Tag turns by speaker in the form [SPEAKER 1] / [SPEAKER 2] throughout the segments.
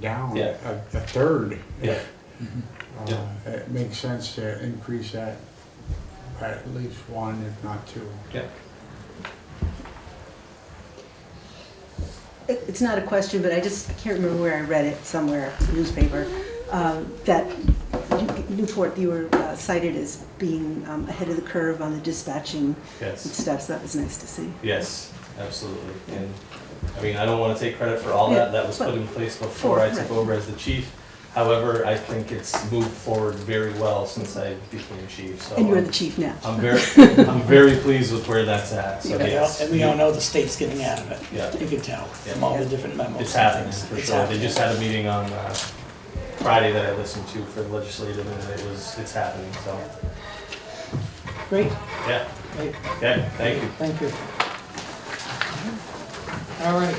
[SPEAKER 1] down
[SPEAKER 2] Yeah.
[SPEAKER 1] a, a third.
[SPEAKER 2] Yeah.
[SPEAKER 1] Uh,
[SPEAKER 2] Yeah.
[SPEAKER 1] It makes sense to increase that by at least one, if not two.
[SPEAKER 2] Yeah.
[SPEAKER 3] It- It's not a question, but I just can't remember where I read it, somewhere, newspaper, um, that Newport, you were uh, cited as being um, ahead of the curve on the dispatching and
[SPEAKER 2] Yes.
[SPEAKER 3] stuff, so that was nice to see.
[SPEAKER 2] Yes, absolutely. And, I mean, I don't want to take credit for all that. That was put in place before I took over as the chief. However, I think it's moved forward very well since I became chief, so.
[SPEAKER 3] And you're the chief now.
[SPEAKER 2] I'm very, I'm very pleased with where that's at, so
[SPEAKER 4] And we all-
[SPEAKER 2] yes.
[SPEAKER 4] and we all know the state's getting out of it.
[SPEAKER 2] Yeah.
[SPEAKER 4] You can tell from all the different memos.
[SPEAKER 2] It's
[SPEAKER 4] and
[SPEAKER 2] happening,
[SPEAKER 4] things.
[SPEAKER 2] for
[SPEAKER 4] It's
[SPEAKER 2] sure. They
[SPEAKER 4] happening.
[SPEAKER 2] just had a meeting on uh, Friday that I listened to for the legislative, and it was, it's happening, so,
[SPEAKER 4] Great,
[SPEAKER 2] yeah,
[SPEAKER 4] great.
[SPEAKER 2] yeah, thank you.
[SPEAKER 4] Thank you. All right.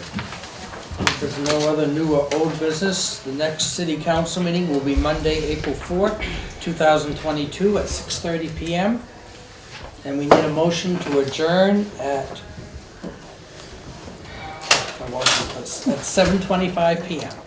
[SPEAKER 4] If there's no other new or old business, the next city council meeting will be Monday, April 4th, 2022, at 6:30 PM. And we need a motion to adjourn at, I lost it, at 7:25 PM.